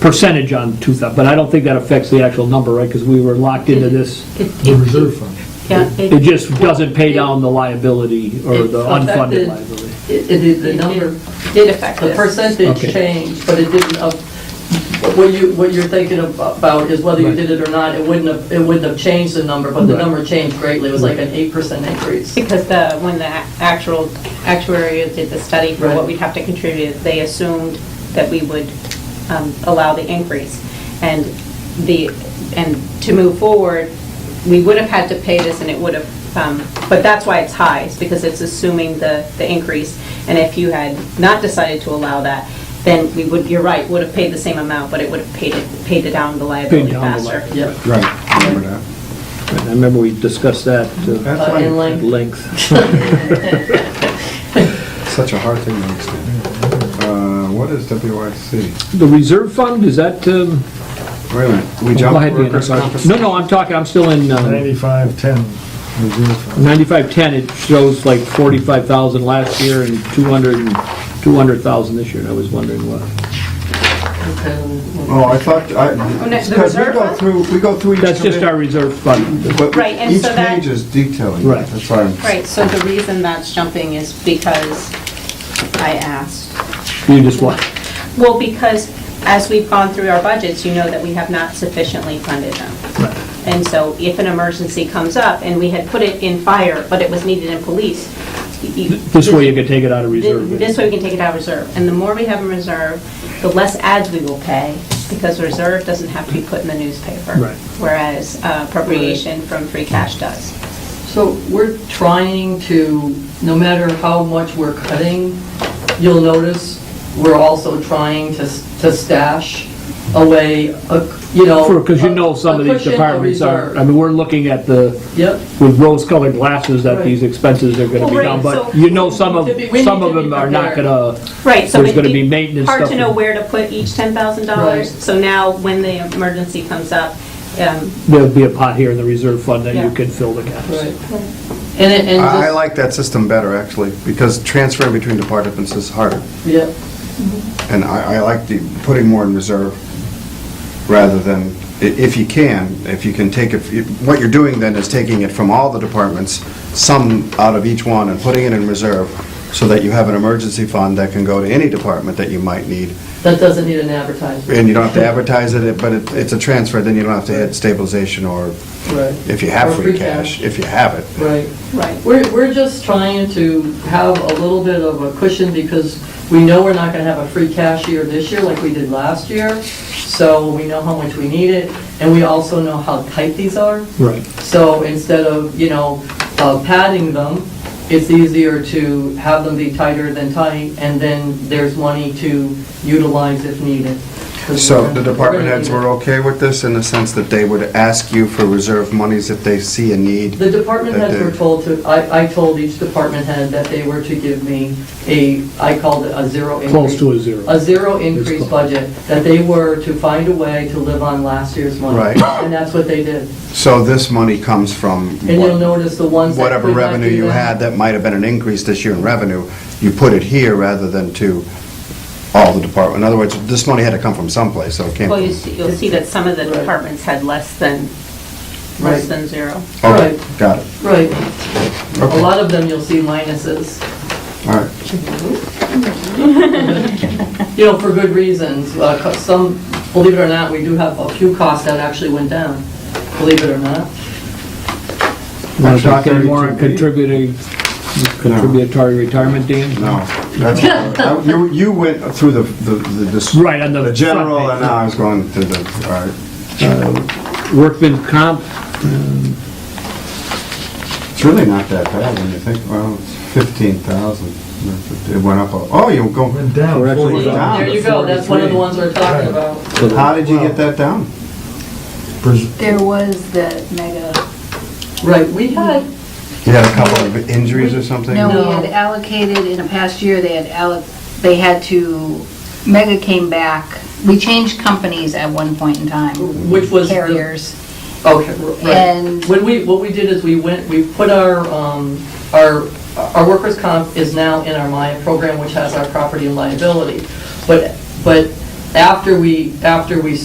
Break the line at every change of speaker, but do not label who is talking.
percentage on 2,000, but I don't think that affects the actual number, right? Because we were locked into this.
The reserve fund.
Yeah,
It just doesn't pay down the liability or the
It
unfunded
affected-
liability.
It, it is the
It
number,
did affect
the
this.
percentage
Okay.
changed, but it didn't, up- what you, what you're thinking ab- about is whether you
Right.
did it or not, it wouldn't have, it wouldn't have changed the number, but the
Right.
number changed greatly, it was like an eight percent increase.
Because the, when the actual actuary did the study for
Right.
what we'd have to contribute, they assumed that we would um, allow the increase. And the, and to move forward, we would have had to pay this and it would have, um, but that's why it's high, is because it's assuming the, the increase. And if you had not decided to allow that, then we would, you're right, would have paid the same amount, but it would have paid it, paid it down the liability
down the
faster.
liability.
Yep.
Right, remember that.
I remember we discussed that uh,
That's
Uh,
why
in line.
at length.
it's such a hard thing to understand. Uh, What is WIC?
The reserve fund, is that, um,
Wait a minute, we
well, I
jumped
had been-
workers'
no,
compensation?
no, I'm talking, I'm still in um,
9510 reserve fund.
9510, it shows like 45,000 last year and 200, and 200,000 this year, and I was wondering what.
Oh, I thought, I,
no, the
because we
reserve
go
fund?
through, we go through each.
That's just our
committee,
reserve fund.
but
Right, and
Each
so that-
page is detailing,
Right.
that's why I'm.
Right, so the reason that's jumping is because I asked.
You just want,
Well, because as we've gone through our budgets, you know that we have not sufficiently funded them. And so if an emergency comes up, and we had put it in fire, but it was needed in police. you-
this way you can take it out of reserve.
This way we can take it out of reserve. And the more we have in reserve, the less ads we will pay, because reserve doesn't have to be put in the newspaper.
Right.
Whereas uh, appropriation from free cash does.
So we're trying to, no matter how much we're cutting, you'll notice, we're also trying to to stash away, a- you know.
Because you know some of these
a cushion, a
departments are,
reserve.
I mean, we're looking at the,
Yep.
with rose-colored glasses that
Right.
these expenses are gonna
Well,
be
right,
down, but
so
you know some of,
we need to be-
some of
we need to
them
be
are not
prepared.
gonna,
Right, so
There's
it'd
gonna
be
be maintenance
Hard
stuff
to know
and-
where to put each $10,000,
Right.
so now when the emergency comes up, um,
there'll be a pot here in the reserve fund that you
Yeah.
can fill the gaps.
Right. And it, and
I I
just,
like that system better, actually, because transferring between departments is harder.
yeah,
And I, I like the, putting more in reserve rather than, i- if you can, if you can take it, if- what you're doing then is taking it from all the departments, some out of each one and putting it in reserve so that you have an emergency fund that can go to any department that you might need.
that doesn't need an advertisement.
And you don't have to advertise it, but it, it's a transfer, then you don't have to hit stabilization or
Right.
if you have
Or
free cash, if you have it.
Right.
right.
We're, we're just trying to have a little bit of a cushion because we know we're not gonna have a free cash year this year like we did last year. So we know how much we need it and we also know how tight these are.
Right.
So instead of, you know, uh, padding them, it's easier to have them be tighter than tight, and then there's money to utilize if needed. 'Cause
So
we're-
the
we're
department
gonna
heads
need it.
were okay with this in the sense that they would ask you for reserve monies if they see a need?
The department
That
heads were
they-
told to, I, I told each department head that they were to give me a, I called it a zero increase.
Close to a zero.
A zero increase
close.
budget, that they were to find a way to live on last year's money.
Right.
And that's what they did.
So this money comes from
And you'll
what-
notice the ones that
whatever
could not
revenue
do
you
that-
had, that might have been an increase this year in revenue, you put it here rather than to all the department. In other words, this money had to come from someplace, so it came
Well, you
from...
see- you'll see that some of the
Right.
departments had less than,
Right.
less than zero.
Okay,
Right.
Oh, got it.
Right. A
Okay,
lot of them you'll see minuses.
all right.
you know, for good reasons. Uh, co- Some, believe it or not, we do have a few costs that actually went down, believe it or not.
Want to
Actually,
talk any more on
32B.
contributing, contributory retirement, Dan?
No, that's, I- you, you went through the, the, the dis-
Right, on the
the general,
front
and
page.
now I was going to the, all right.
Workman comp,
It's really not that bad when you think, well, it's 15,000. It went up, a- oh, you go,
Went down
Correct.
40.
Down
There you go, that's one of the ones we're talking about.
how did you get that down?
Pres-
There was the mega,
Right, we had,
You had a couple of injuries or something?
no,
No.
we had allocated, in a past year, they had alloc, they had to, mega came back, we changed companies at one point in time,
which was. the-
carriers.
Okay, right.
And-
When we, what we did is we went, we put our, um, our, our workers' comp is now in our Maya program, which has our property and liability. But, but after we, after we